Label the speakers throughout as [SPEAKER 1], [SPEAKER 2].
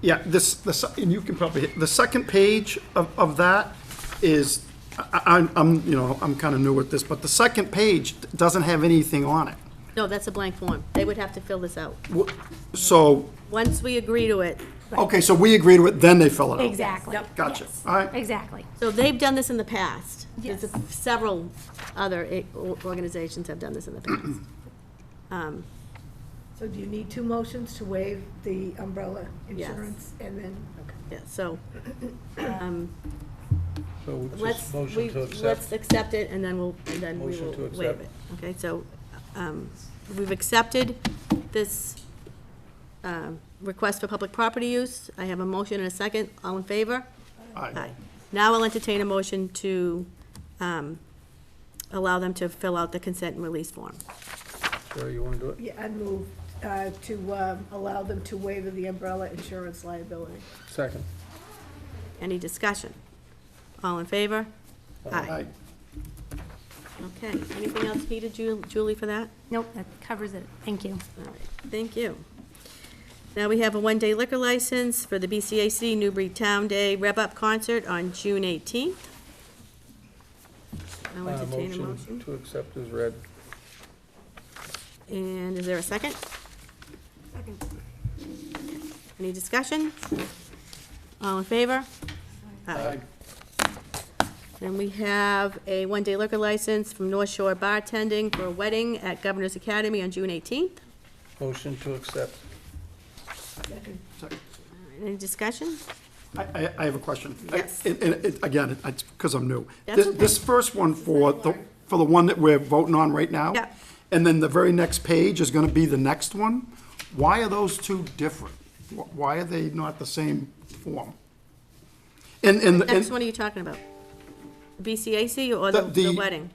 [SPEAKER 1] Yeah, this, the, se- and you can probably, hit- the second page of, of that is, I, I'm- I'm, you know, I'm kind of new at this, but the second page doesn't have anything on it.
[SPEAKER 2] No, that's a blank form. They would have to fill this out.
[SPEAKER 1] So,
[SPEAKER 2] Once we agree to it,
[SPEAKER 1] okay, so we agreed to it, then they fill it out.
[SPEAKER 3] Exactly.
[SPEAKER 1] Gotcha.
[SPEAKER 3] Yes.
[SPEAKER 1] All right.
[SPEAKER 3] Exactly.
[SPEAKER 2] so they've done this in the past. There's
[SPEAKER 3] Yes.
[SPEAKER 2] Several other i- o- organizations have done this in the past.
[SPEAKER 4] So do you need two motions to waive the umbrella
[SPEAKER 2] Yes.
[SPEAKER 4] insurance? And then,
[SPEAKER 2] Yeah, so, um,
[SPEAKER 5] So
[SPEAKER 2] let's,
[SPEAKER 5] just
[SPEAKER 2] we,
[SPEAKER 5] motion to
[SPEAKER 2] let's
[SPEAKER 5] accept.
[SPEAKER 2] accept it, and then we'll, and then we
[SPEAKER 5] Motion
[SPEAKER 2] will
[SPEAKER 5] to
[SPEAKER 2] waive
[SPEAKER 5] accept.
[SPEAKER 2] it. Okay, so, um, we've accepted this, um, request for public property use. I have a motion and a second. All in favor?
[SPEAKER 1] Aye.
[SPEAKER 2] Now I'll entertain a motion to, um, allow them to fill out the consent and release form.
[SPEAKER 5] Sarah, you want to do it?
[SPEAKER 4] yeah, I move uh, to um, allow them to waive the umbrella insurance liability.
[SPEAKER 5] Second.
[SPEAKER 2] Any discussion? All in favor? Aye.
[SPEAKER 1] Aye.
[SPEAKER 2] Okay, anything else needed, Ju- Julie, for that?
[SPEAKER 3] Nope, that covers it. Thank you.
[SPEAKER 2] All right, thank you. Now we have a one-day liquor license for the BCAC Newbury Town Day Rev Up Concert on June 18th. I'll
[SPEAKER 5] Uh,
[SPEAKER 2] entertain a motion.
[SPEAKER 5] To accept is read.
[SPEAKER 2] And is there a second? Any discussion? All in favor? Aye. Then we have a one-day liquor license from North Shore Bartending for a wedding at Governor's Academy on June 18th.
[SPEAKER 5] Motion to accept.
[SPEAKER 2] All right, Any discussion?
[SPEAKER 1] I, I, I have a question. I-
[SPEAKER 2] Yes.
[SPEAKER 1] And, and it- again, it's because I'm new.
[SPEAKER 2] That's
[SPEAKER 1] This-
[SPEAKER 2] okay.
[SPEAKER 1] This first one for the, for the one that we're voting on right now.
[SPEAKER 2] Yeah.
[SPEAKER 1] And then the very next page is gonna be the next one. Why are those two different? Wh- Why are they not the same form? And, and,
[SPEAKER 2] Next
[SPEAKER 1] and,
[SPEAKER 2] one are you talking about? BCAC or
[SPEAKER 1] The-
[SPEAKER 2] the- the
[SPEAKER 1] the-
[SPEAKER 2] wedding?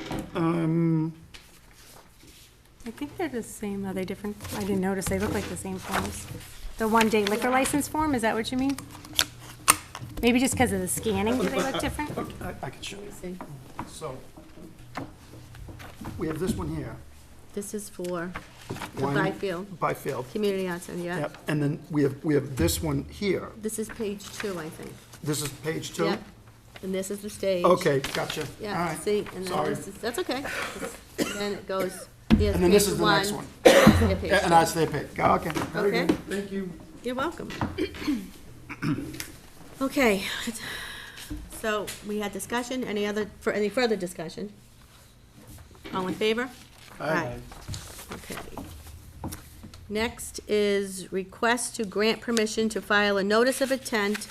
[SPEAKER 3] I think they're the same. Are they different? I didn't notice. They look like the same forms. The one-day liquor license form, is that what you mean? Maybe just because of the scanning, do they look different?
[SPEAKER 1] I, I can show you.
[SPEAKER 2] See,
[SPEAKER 1] So, we have this one here.
[SPEAKER 2] This is for the
[SPEAKER 1] Wine-
[SPEAKER 2] Byfield
[SPEAKER 1] Byfield.
[SPEAKER 2] Community Arts Center, yeah.
[SPEAKER 1] Yep, and then we have, we have this one here.
[SPEAKER 2] This is page two, I think.
[SPEAKER 1] This is page two?
[SPEAKER 2] Yep. And this is the stage.
[SPEAKER 1] Okay, gotcha. All
[SPEAKER 2] Yeah,
[SPEAKER 1] right.
[SPEAKER 2] see, and then
[SPEAKER 1] Sorry.
[SPEAKER 2] this is, that's okay. And then it goes, here's
[SPEAKER 1] And then this is
[SPEAKER 2] page
[SPEAKER 1] the next
[SPEAKER 2] one.
[SPEAKER 1] one.
[SPEAKER 2] Yeah, page
[SPEAKER 1] And
[SPEAKER 2] two.
[SPEAKER 1] that's their pick. Okay. very
[SPEAKER 2] Okay.
[SPEAKER 1] good. Thank you.
[SPEAKER 2] You're welcome. Okay, so we had discussion, any other, for any further discussion? All in favor? Aye. Okay. Next is request to grant permission to file a notice of intent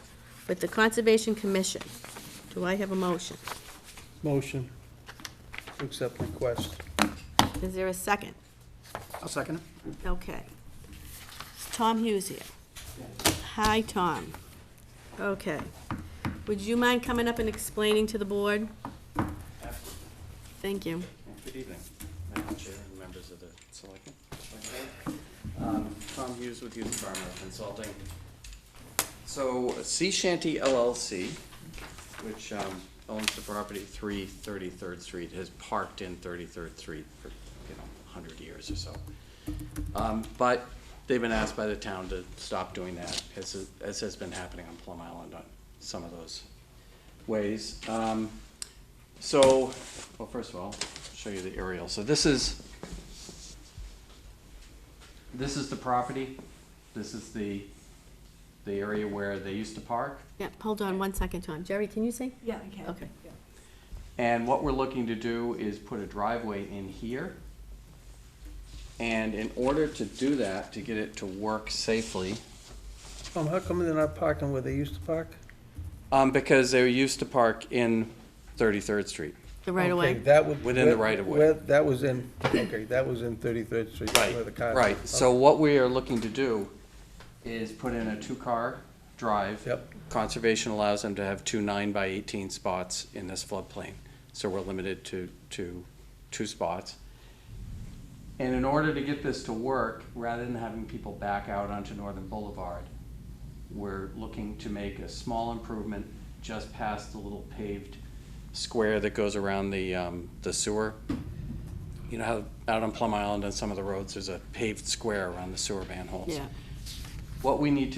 [SPEAKER 2] with the Conservation Commission. Do I have a motion?
[SPEAKER 5] Motion to accept request.
[SPEAKER 2] Is there a second?
[SPEAKER 1] I'll second it.
[SPEAKER 2] Okay. It's Tom Hughes here. Hi, Tom. Okay. Would you mind coming up and explaining to the board? Thank you.
[SPEAKER 6] Good evening, Madam Chair and members of the Selectmen. Um, Tom Hughes with Hughes Farmer Consulting. So Sea Shanty LLC, which um, owns the property 3 33rd Street, has parked in 33rd Street for, you know, 100 years or so. Um, But they've been asked by the town to stop doing that, as as has been happening on Plum Island on some of those ways. Um, so, well, first of all, I'll show you the aerial. So this is, this is the property. This is the, the area where they used to park.
[SPEAKER 2] Yeah, hold on one second, Tom. Jerry, can you see?
[SPEAKER 4] Yeah, I can.
[SPEAKER 2] Okay.
[SPEAKER 6] And what we're looking to do is put a driveway in here. And in order to do that, to get it to work safely,
[SPEAKER 5] Um, how come they're not parking where they used to park?
[SPEAKER 6] um, because they used to park in Thirty-third Street.
[SPEAKER 2] The right of
[SPEAKER 5] Okay,
[SPEAKER 2] way.
[SPEAKER 5] that would.
[SPEAKER 6] Within the right of way.
[SPEAKER 5] where- That was in, okay, that was in Thirty-third Street. where the car- Oh.
[SPEAKER 6] Right, so what we are looking to do is put in a two-car drive.
[SPEAKER 5] Yep.
[SPEAKER 6] Conservation allows them to have two nine by eighteen spots in this floodplain, so we're limited to, to two spots. And in order to get this to work, rather than having people back out onto Northern Boulevard, we're looking to make a small improvement just past the little paved square that goes around the, um, the sewer. You know how out on Plum Island on some of the roads, there's a paved square around the sewer manholes?
[SPEAKER 2] Yeah.
[SPEAKER 6] What we need to